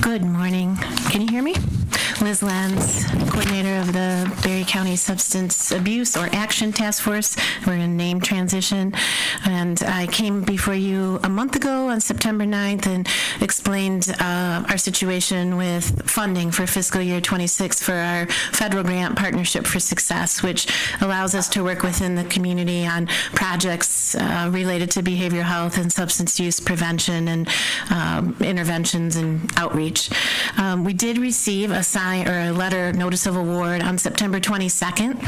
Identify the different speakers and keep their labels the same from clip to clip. Speaker 1: Good morning. Can you hear me? Liz Lenz, Coordinator of the Berry County Substance Abuse or Action Task Force. We're in name transition. And I came before you a month ago on September 9th and explained uh, our situation with funding for fiscal year 26 for our federal grant Partnership for Success, which allows us to work within the community on projects uh, related to behavioral health and substance use prevention and um, interventions and outreach. Um, we did receive a sign or a letter notice of award on September 22nd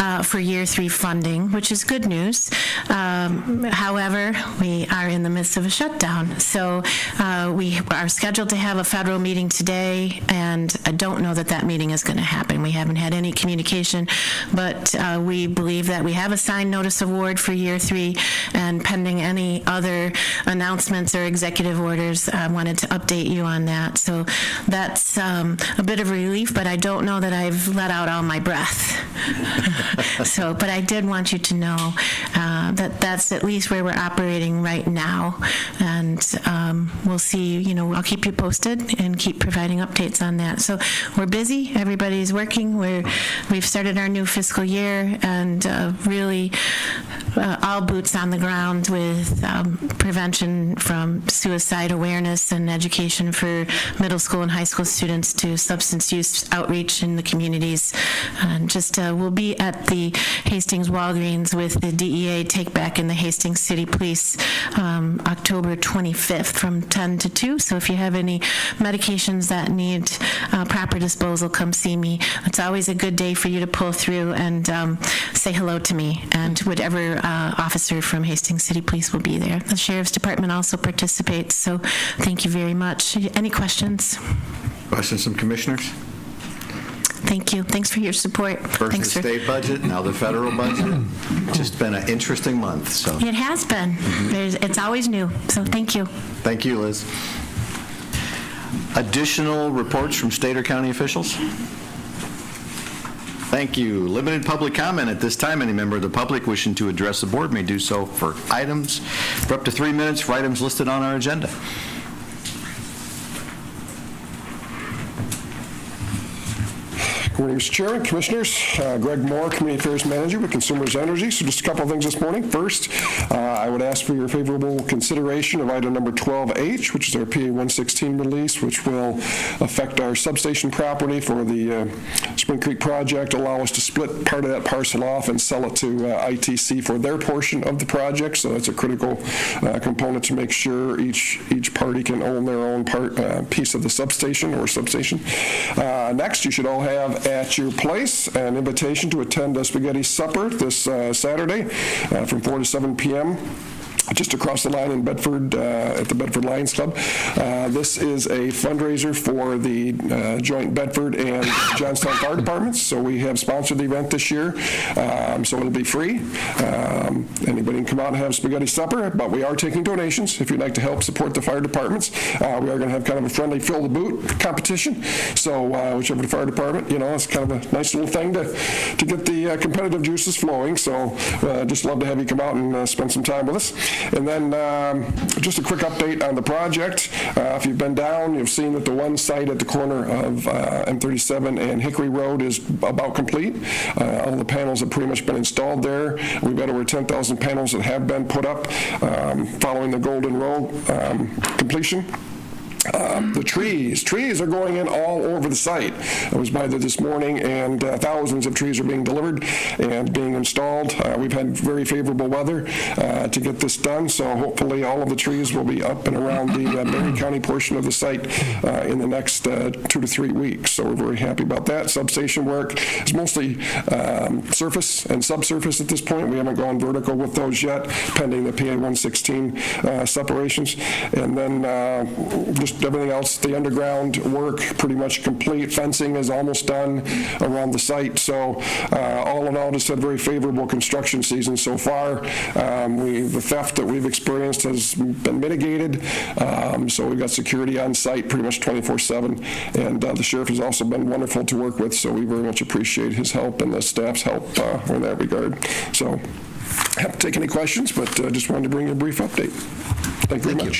Speaker 1: uh, for year three funding, which is good news. Um, however, we are in the midst of a shutdown, so uh, we are scheduled to have a federal meeting today, and I don't know that that meeting is going to happen. We haven't had any communication, but uh, we believe that we have a signed notice award for year three, and pending any other announcements or executive orders, I wanted to update you on that. So that's um, a bit of relief, but I don't know that I've let out all my breath. So, but I did want you to know uh, that that's at least where we're operating right now. And um, we'll see, you know, I'll keep you posted and keep providing updates on that. So we're busy, everybody's working, we're, we've started our new fiscal year and uh, really uh, all boots on the ground with um, prevention from suicide awareness and education for middle school and high school students to substance use outreach in the communities. And just, uh, we'll be at the Hastings Walgreens with the DEA Take Back and the Hastings City Police um, October 25th from 10 to 2. So if you have any medications that need uh, proper disposal, come see me. It's always a good day for you to pull through and um, say hello to me. And whatever uh, officer from Hastings City Police will be there. The Sheriff's Department also participates, so thank you very much. Any questions?
Speaker 2: Questions from commissioners?
Speaker 1: Thank you. Thanks for your support.
Speaker 2: First the
Speaker 1: Thanks for-
Speaker 2: state budget, now the federal budget. It's just been an interesting month, so
Speaker 1: It has been. There's, it's always new, so thank you.
Speaker 2: thank you, Liz. Additional reports from state or county officials? Thank you. Limited public comment at this time. Any member of the public wishing to address the board may do so for items, for up to three minutes, for items listed on our agenda.
Speaker 3: Good morning, Mr. Chairman, Commissioners. Uh, Greg Moore, Community Affairs Manager with Consumers Energy. So just a couple of things this morning. First, uh, I would ask for your favorable consideration of item number 12H, which is our PA 116 release, which will affect our substation property for the uh, Spring Creek project, allow us to split part of that parcel off and sell it to uh, ITC for their portion of the project. So that's a critical uh, component to make sure each, each party can own their own part, uh, piece of the substation or substation. Uh, Next, you should all have at your place an invitation to attend a spaghetti supper this uh, Saturday uh, from 4 to 7 p.m just across the line in Bedford, uh, at the Bedford Lions Club. Uh, This is a fundraiser for the uh, joint Bedford and Johnstown Fire Departments, so we have sponsored the event this year, um, so it'll be free. Um, Anybody can come out and have spaghetti supper, but we are taking donations if you'd like to help support the fire departments. Uh, We are going to have kind of a friendly fill-the-boot competition, so uh, whichever the fire department, you know, it's kind of a nice little thing to, to get the uh, competitive juices flowing, so uh, just love to have you come out and uh, spend some time with us. And then, um, just a quick update on the project. Uh, If you've been down, you've seen that the one site at the corner of uh, M37 and Hickory Road is about complete. Uh, All the panels have pretty much been installed there. We've got over 10,000 panels that have been put up um, following the Golden Row um, completion. Um, The trees, trees are going in all over the site. I was by there this morning, and uh, thousands of trees are being delivered and being installed. Uh, We've had very favorable weather uh, to get this done, so hopefully all of the trees will be up and around the uh, Berry County portion of the site uh, in the next uh, two to three weeks. So we're very happy about that. Substation work is mostly um, surface and subsurface at this point. We haven't gone vertical with those yet, pending the PA 116 uh, separations. And then uh, just everything else, the underground work pretty much complete. Fencing is almost done around the site. So uh, all in all, just had very favorable construction season so far. Um, we- The theft that we've experienced has been mitigated. Um, So we've got security on site pretty much 24/7. And uh, the sheriff has also been wonderful to work with, so we very much appreciate his help and the staff's help uh, in that regard. So happy to take any questions, but uh, just wanted to bring you a brief update. Thank you very much.